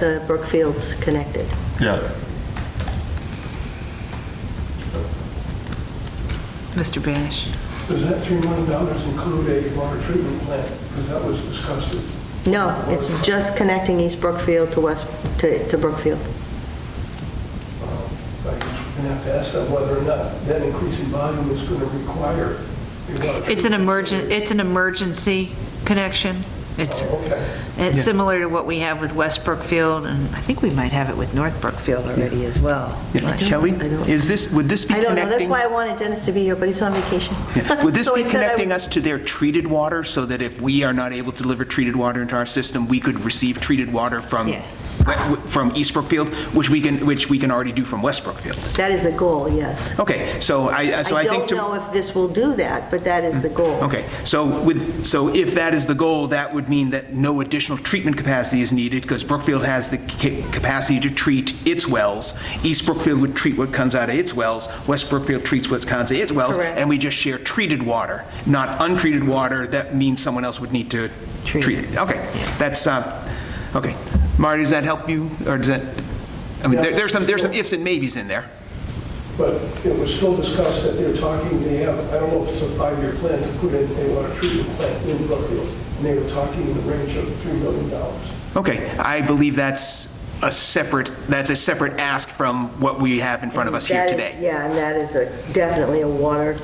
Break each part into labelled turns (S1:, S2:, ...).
S1: the Brookfield's connected.
S2: Yeah.
S3: Mr. Banish?
S4: Does that $3 million include a water treatment plant? Because that was discussed.
S1: No, it's just connecting East Brookfield to West, to to Brookfield.
S4: Um, I guess we're going to have to ask them whether or not that increase in volume is going to require a water treatment.
S3: It's an emergen, it's an emergency connection. It's,
S4: Oh, okay.
S3: it's similar to what we have with West Brookfield, and I think we might have it with North Brookfield already as well.
S1: I
S5: Yeah,
S1: don't-
S5: Kelly,
S1: I don't-
S5: is this, would this be
S1: I don't know, that's
S5: connecting?
S1: why I wanted Dennis to be here, but he's on vacation.
S5: Would this
S1: So
S5: be
S1: I said I
S5: connecting
S1: would-
S5: us to their treated water so that if we are not able to deliver treated water into our system, we could receive treated water from,
S3: Yeah.
S5: we- from East Brookfield, which we can, which we can already do from West Brookfield?
S1: That is the goal, yes.
S5: Okay, so I, so I
S1: I
S5: think.
S1: don't
S5: to-
S1: know if this will do that, but that is the goal.
S5: Okay, so with, so if that is the goal, that would mean that no additional treatment capacity is needed because Brookfield has the ca- capacity to treat its wells. East Brookfield would treat what comes out of its wells, West Brookfield treats what comes out of its wells.
S1: Correct.
S5: And we just share treated water, not untreated water. That means someone else would need to
S3: Treat
S5: treat it. Okay, that's, uh, okay. Marty, does that help you or does that, I mean, there- there's some, there's some ifs and maybes in there.
S4: But it was still discussed that they're talking, they have, I don't know if it's a five-year plan to put in a water treatment plant in Brookfield. And they were talking in the range of $3 million.
S5: Okay, I believe that's a separate, that's a separate ask from what we have in front of us here
S1: That is-
S5: today.
S1: Yeah, and that is a- definitely a water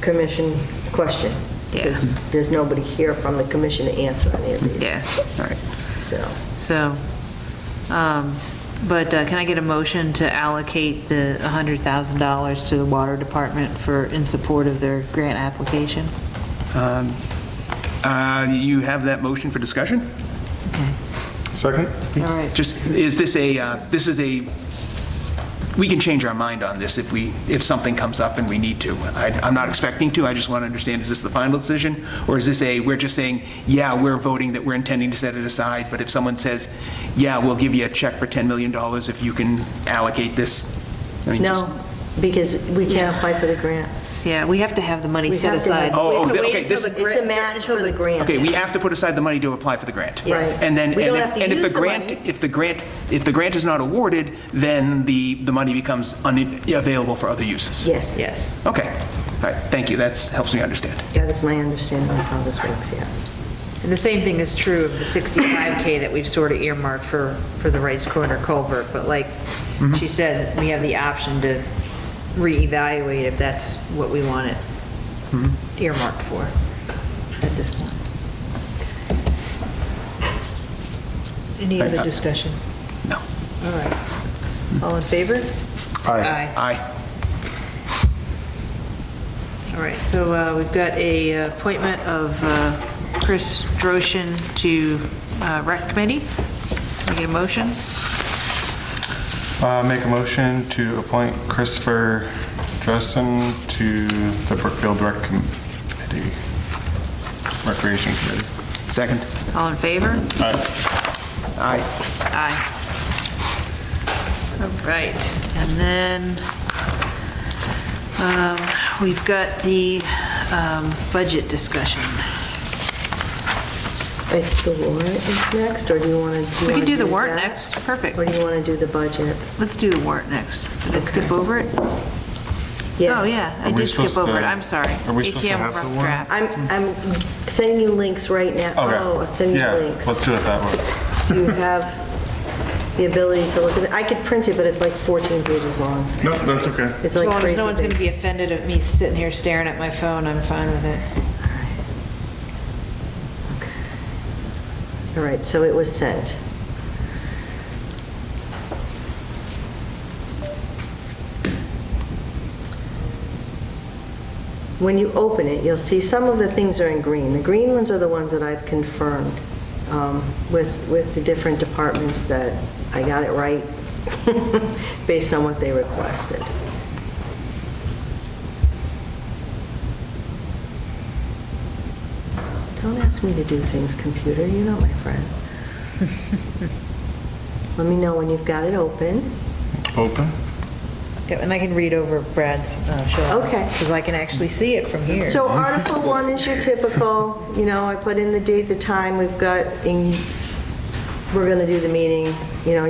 S1: commission question. because
S3: Yeah.
S1: There's nobody here from the commission to answer any of these.
S3: Yeah,
S5: All right.
S1: So,
S3: so, um, but uh, can I get a motion to allocate the $100,000 to the Water Department for, in support of their grant application?
S5: Uh, You have that motion for discussion?
S2: Second?
S3: All right,
S5: Just, is this a, uh, this is a, we can change our mind on this if we, if something comes up and we need to. I- I'm not expecting to, I just want to understand, is this the final decision? Or is this a, we're just saying, yeah, we're voting that we're intending to set it aside, but if someone says, yeah, we'll give you a check for $10 million if you can allocate this? I mean, just-
S1: no, because we can't
S3: Yeah.
S1: apply for the grant.
S3: yeah, we have to have the money
S1: We
S3: set
S1: have to have-
S3: aside.
S5: Oh,
S1: we have to
S5: oh,
S1: wait
S5: okay,
S1: until
S5: this-
S1: the- It's a match for the grant.
S5: Okay, we have to put aside the money to apply for the grant.
S1: Right.
S5: And then,
S1: We
S5: and
S1: don't
S5: if,
S1: have to
S5: and if the
S1: use the
S5: grant,
S1: money.
S5: if the grant, if the grant is not awarded, then the, the money becomes un- available for other uses.
S1: Yes,
S3: Yes.
S5: Okay, all right, thank you, that helps me understand.
S1: that is my understanding of how this works, yeah.
S3: And the same thing is true of the 65K that we've sort of earmarked for, for the Rice Corner culvert, but like she said, we have the option to reevaluate if that's what we want it earmarked for at this point. Any other discussion?
S5: No.
S3: All right. All in favor? Aye.
S5: Aye.
S3: All right, so uh, we've got a uh, appointment of uh, Chris Droshin to uh, Rec Committee. Can I get a motion?
S2: Uh, Make a motion to appoint Christopher Dressen to the Brookfield Rec Committee, Recreation Committee.
S5: Second?
S3: All in favor?
S5: Aye.
S3: Aye. All right, and then um, we've got the um, budget discussion.
S1: It's the warrant is next, or do you want to?
S3: We can do the warrant next, perfect.
S1: Or do you want to do the budget?
S3: Let's do the warrant next. Did I skip over it? Oh, yeah, I
S2: Are we
S3: did skip
S2: supposed
S3: over it,
S2: to-
S3: I'm sorry.
S2: are we supposed to
S3: ATM
S2: have the
S3: rough
S2: warrant?
S3: draft.
S1: I'm, I'm sending you links right now. Oh, I'm
S2: Okay,
S1: sending you
S2: yeah,
S1: links.
S2: let's do it that way.
S1: Do you have the ability to look at it? I could print it, but it's like 14 pages long.
S2: No, that's okay.
S1: It's
S3: As
S1: like
S3: long as
S1: crazy
S3: no one's going to
S1: big.
S3: be offended at me sitting here staring at my phone, I'm fine with it.
S1: All right, so it was sent. When you open it, you'll see some of the things are in green. The green ones are the ones that I've confirmed um, with, with the different departments that I got it right based on what they requested. Don't ask me to do things, computer, you're not my friend. Let me know when you've got it open.
S2: Open?
S3: Yeah, And I can read over Brad's uh, show.
S1: Okay.
S3: Because I can actually see it from here.
S1: So Article 1 is your typical, you know, I put in the date, the time, we've got, in- we're going to do the meeting, you know,